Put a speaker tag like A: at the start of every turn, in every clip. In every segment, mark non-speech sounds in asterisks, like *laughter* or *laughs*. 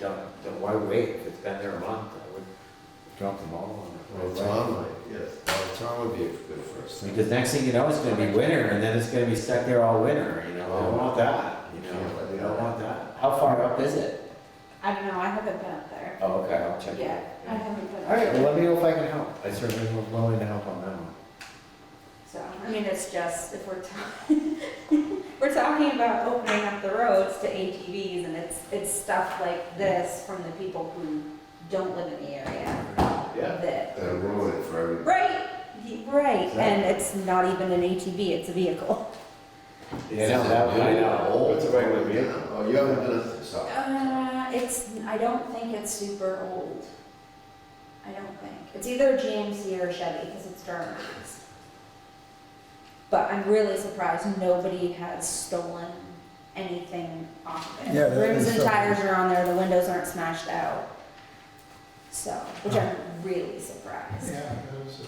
A: done, then why wait? If it's been there a month, I would drop them all on
B: Well,
A: the road.
B: Tom might, yes, Well, Tom would be a good first thing.
A: Because next thing you know, it's gonna be winter, and then it's gonna be stuck there all winter, you know, I don't want that, you know, I don't want that. How far up is it?
C: I don't know, I haven't been up there
A: Oh, okay, I'll check it out.
C: yet. I haven't been
A: All
C: up
A: right, well,
C: there.
A: let me know if I can help, I certainly am willing to help on that one.
C: So, I mean, it's just, if we're talking, *laughs* we're talking about opening up the roads to ATVs and it's, it's stuff like this from the people who don't live in the area
B: Yeah.
C: that,
B: That'll ruin it for everybody.
C: right, y- right, and it's not even an ATV, it's a vehicle.
A: You know, that one, I know.
B: What's the right way to be? Oh, you haven't done it, so.
C: Uh, it's, I don't think it's super old. I don't think. It's either GMC or Chevy because it's Duramax. But I'm really surprised nobody has stolen anything off of it.
D: Yeah, that
C: Rims
D: is
C: and
D: something.
C: tires are on there, the windows aren't smashed out. So, which I'm really surprised,
D: Uh-huh. Yeah, those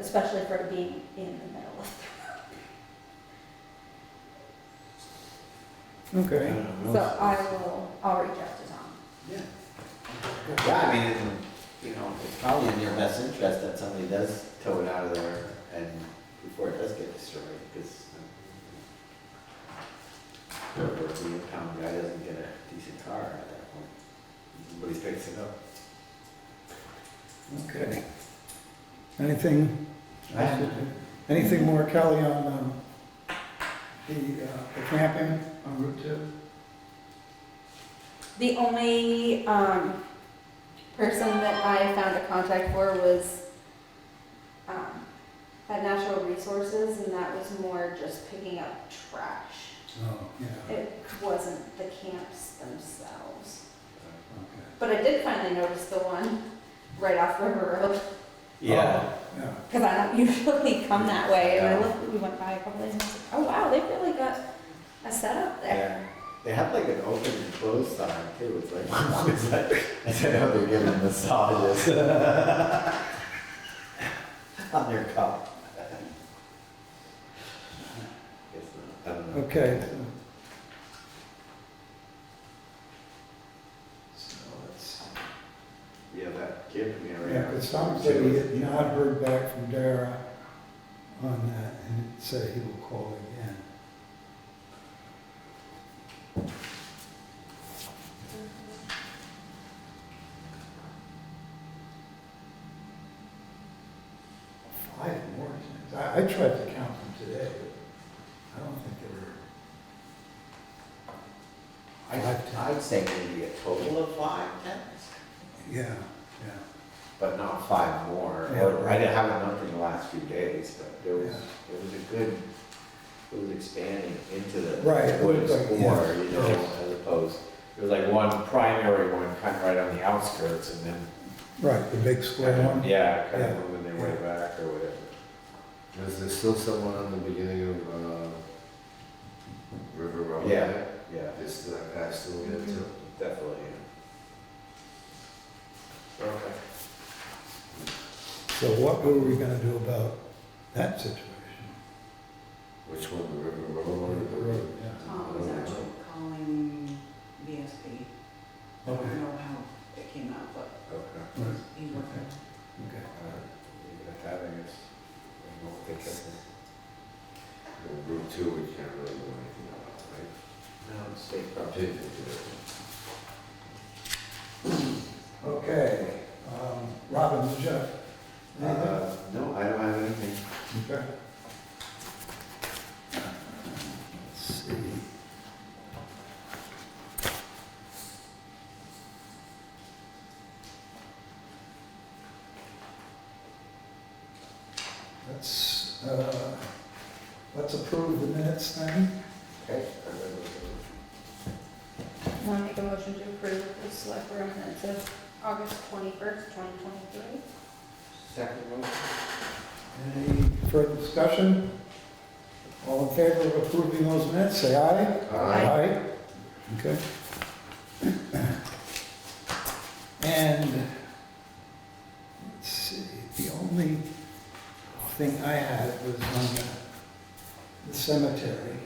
C: especially for it being in the middle of
D: are.
A: I don't
D: Okay.
C: the
A: know.
C: road. So I will, I'll reach out to Tom.
A: Yeah, I mean, it- you know, it's probably in your best interest that somebody does tow it out of there and before it does get destroyed, because whoever the impound guy doesn't get a decent car at that point. Nobody's fixing it up.
D: Okay. Anything,
A: I-
D: anything more, Kelly, on um, the uh, the camping on Route 2?
C: The only um, person that I found a contact for was um, at Natural Resources, and that was more just picking up trash.
D: Oh, yeah.
C: It wasn't the camps themselves.
D: Okay.
C: But I did finally notice the one right off River Road,
A: Yeah,
D: Yeah.
C: because I don't *laughs* usually come that way. And I looked, we went by a couple days, and I was like, oh wow, they really got a setup there.
A: yeah. They have like an open and closed sign too, it's like, *laughs* it's like, I said, oh, they're giving massages. *laughs* On their cup. Guess not, I don't know.
D: Okay. so-
B: So that's,
A: Yeah, that kid in the
D: Yeah,
A: area.
D: but somebody had not heard back from Dara on that and said he will call again. Five more things. I, I tried to count them today, but I don't think there were.
A: I'd, I'd say maybe a total of five tenants,
D: Yeah, yeah.
A: but not five more.
D: Yeah.
A: I didn't have enough in the last few days, but there was,
D: Yeah.
A: it was a good, it was expanding into the
D: Right, it
A: woods
D: looked like,
A: more,
D: yeah.
A: you know, as opposed, it was like one primary one kind of right on the outskirts and then,
D: Right, the big square
A: kind
D: one.
A: of- yeah, kind
D: Yeah.
A: of moving their way back or whatever.
B: is there still someone on the beginning of, uh, River Road?
A: Yeah, yeah,
B: Is that guy still there too?
A: definitely, yeah. Okay.
D: So what were we gonna do about that situation?
B: Which one, the River Road one or the
D: The road,
E: Tom was actually calling VSB. I don't know how it came out, but
A: Okay.
D: yeah. Right,
E: he worked it.
D: Okay.
A: Uh, Having us, I don't think that's.
B: Well, Route two, we can't really do anything about, right?
A: No, it's state
B: Up to you to do
D: Okay, um, Robin, did you have anything?
A: Uh, no, I don't have anything.
D: Okay. Let's see. Let's, uh, let's approve the minutes then.
A: Okay.
C: Want to make a motion to approve the select board minutes of August 21st, 2023?
A: Second motion?
D: Any further discussion? All in favor of approving those minutes, say aye.
B: it.
D: Aye. Okay. *coughs* And, let's see, the only thing I had was on the cemetery.